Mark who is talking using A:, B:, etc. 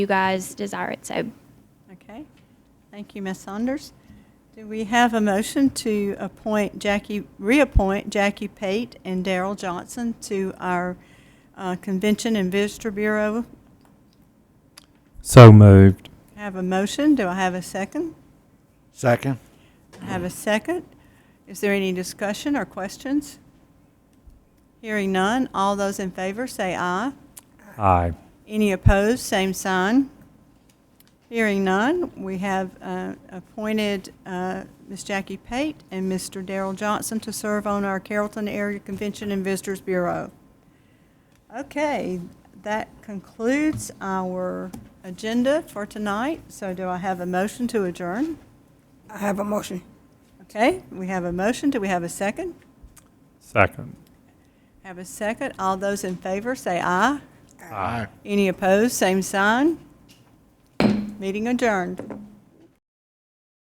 A: you guys desire it so.
B: Okay. Thank you, Ms. Saunders. Do we have a motion to appoint Jackie, reappoint Jackie Pate and Daryl Johnson to our uh, Convention and Visitor Bureau?
C: So moved.
B: I Have a motion. Do I have a second?
D: Second.
B: I have a second. Is there any discussion or questions? Hearing none. All those in favor say aye.
C: Aye.
B: Any opposed, same sign. Hearing none, we have uh, appointed uh, Ms. Jackie Pate and Mr. Darrell Johnson to serve on our Carrollton Area Convention and Visitors Bureau. Okay, that concludes our agenda for tonight, so do I have a motion to adjourn?
E: I have a motion.
B: Okay, we have a motion, do we have a second?
C: Second.
B: Have a second, all those in favor say aye.
D: Aye.
B: Any opposed, same sign. Meeting adjourned.